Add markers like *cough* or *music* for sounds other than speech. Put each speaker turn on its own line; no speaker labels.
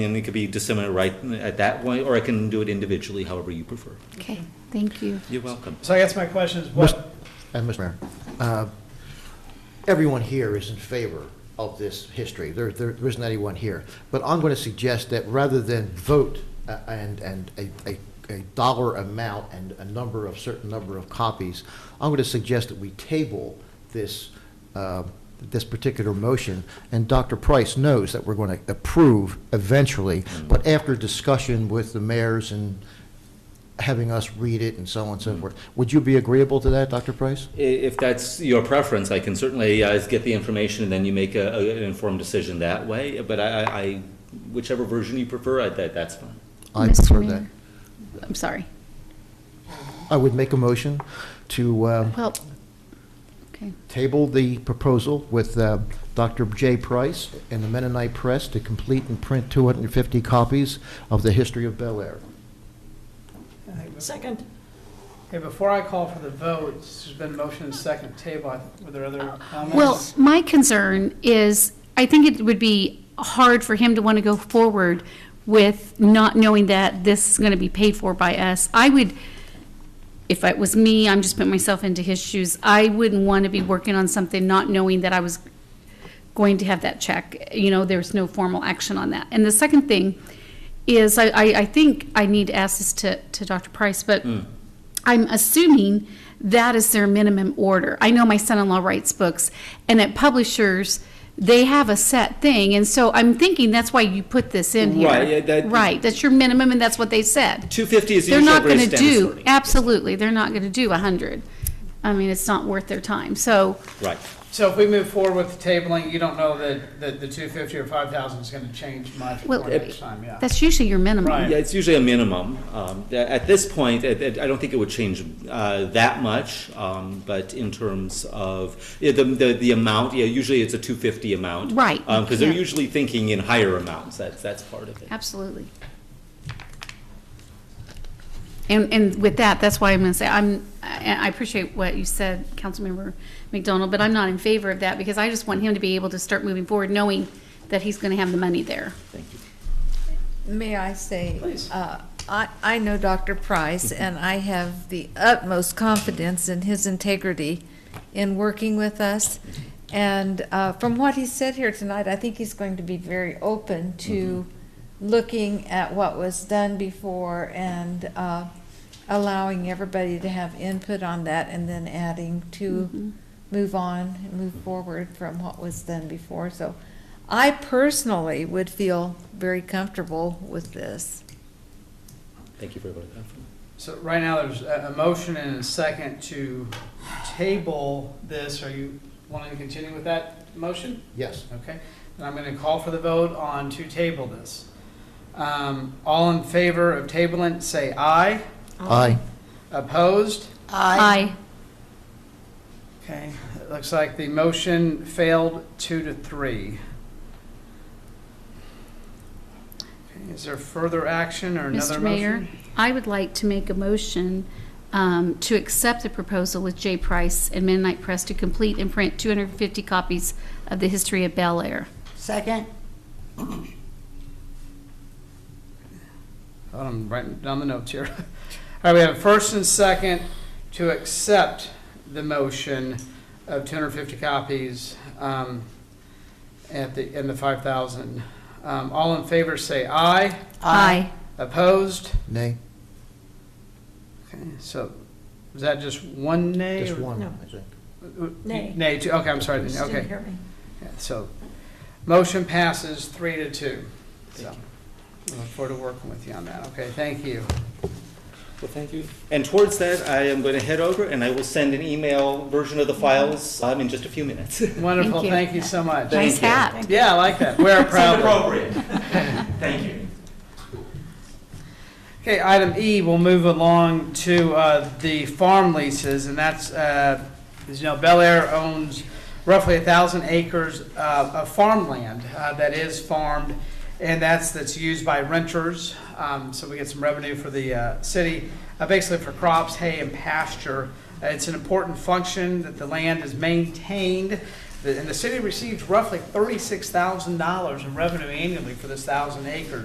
And it could be disseminated right at that way, or I can do it individually, however you prefer.
Okay, thank you.
You're welcome.
So I guess my question is, what,
Uh, Mr. Mayor, uh, everyone here is in favor of this history. There, there there isn't anyone here. But I'm going to suggest that rather than vote uh, and, and a, a a dollar amount and a number of, certain number of copies, I'm going to suggest that we table this, uh, this particular motion. And Dr. Price knows that we're going to approve eventually, but after discussion with the mayors and having us read it and so on and so forth. Would you be agreeable to that, Dr. Price?
I- If that's your preference, I can certainly uh, get the information, and then you make a- a- an informed decision that way. But I- I, I- whichever version you prefer, I- that- that's fine.
I
Mr.
prefer that.
Mayor. I'm sorry.
I would make a motion to uh,
Well, okay,
table the proposal with uh, Dr. J. Price and the Mennonite Press to complete and print 250 copies of the history of Bel Air.
Second.
hey, before I call for the vote, there's been motion and second table, I- were there other comments?
well, my concern is, I think it would be hard for him to want to go forward with not knowing that this is going to be paid for by us. I would, if it was me, I'm just putting myself into his shoes, I wouldn't want to be working on something not knowing that I was going to have that check. You know, there's no formal action on that. And the second thing is, I, I, I think I need to ask this to, to Dr. Price, but
Hmm.
I'm assuming that is their minimum order. I know my son-in-law writes books, and at publishers, they have a set thing, and so I'm thinking that's why you put this in here.
Right, yeah, that-
Right, that's your minimum, and that's what they said.
250 is the
They're
usual
not gonna
Grace Dennis
do,
wording.
absolutely, they're not gonna do a hundred. I mean, it's not worth their time, so,
Right.
So if we move forward with the tabling, you don't know that, that the two fifty or five thousand is gonna change much
well,
for next time, yeah.
that's usually your minimum.
Right.
Yeah, it's usually a minimum. Um, a- At this point, it- it- I don't think it would change uh, that much, um, but in terms of yeah, the the the amount, yeah, usually it's a 250 amount.
Right, you
Because they're
can't.
usually thinking in higher amounts, that's that's part of it.
Absolutely. And, and with that, that's why I'm going to say, I'm, I I appreciate what you said, Councilmember McDonald, but I'm not in favor of that because I just want him to be able to start moving forward knowing that he's going to have the money there.
Thank you.
May I say?
Please.
uh, I, I know Dr. Price, and I have the utmost confidence in his integrity in working with us. And uh, from what he said here tonight, I think he's going to be very open to looking at what was done before and uh, allowing everybody to have input on that and then adding to move on and move forward from what was done before. So I personally would feel very comfortable with this.
Thank you very much.
So right now, there's a, a motion and a second to table this, are you wanting to continue with that motion?
Yes.
Okay, and I'm going to call for the vote on to table this. Um, All in favor of tabling, say aye.
Aye.
Opposed?
Aye.
Okay, it looks like the motion failed two to three. Okay, Is there further action or another
Mr.
motion?
Mayor, I would like to make a motion um, to accept the proposal with J. Price and Midnight Press to complete and print 250 copies of the history of Bel Air.
Second?
Hold on, I'm writing down the notes here. *laughs* All right, we have a first and second to accept the motion of two hundred and fifty copies, um, at the, in the five thousand. Um, all in favor, say aye. Opposed?
Nay?
Okay, so, is that just one nay?
Just
or-
one,
No.
I think.
Nay.
Nay, two, okay, I'm sorry,
Just didn't
okay.
hear me.
Yeah, So, motion passes three to two, so, I look forward to working with you on that, okay, thank you.
Well, thank you. And towards that, I am going to head over and I will send an email version of the files um, in just a few minutes. *laughs*
Wonderful,
you.
thank you so much.
Nice
you.
hat.
Yeah, I like that. Wear it proudly.
Appropriate. Thank you.
Okay, item E, we'll move along to uh, the farm leases, and that's, uh, as you know, Bel Air owns roughly 1,000 acres uh, of farmland uh, that is farmed, and that's, that's used by renters, um, so we get some revenue for the uh, city, uh, basically for crops, hay, and pasture. Uh, It's an important function that the land is maintained, The- and the city receives roughly $36,000 in revenue annually for this 1,000 acres.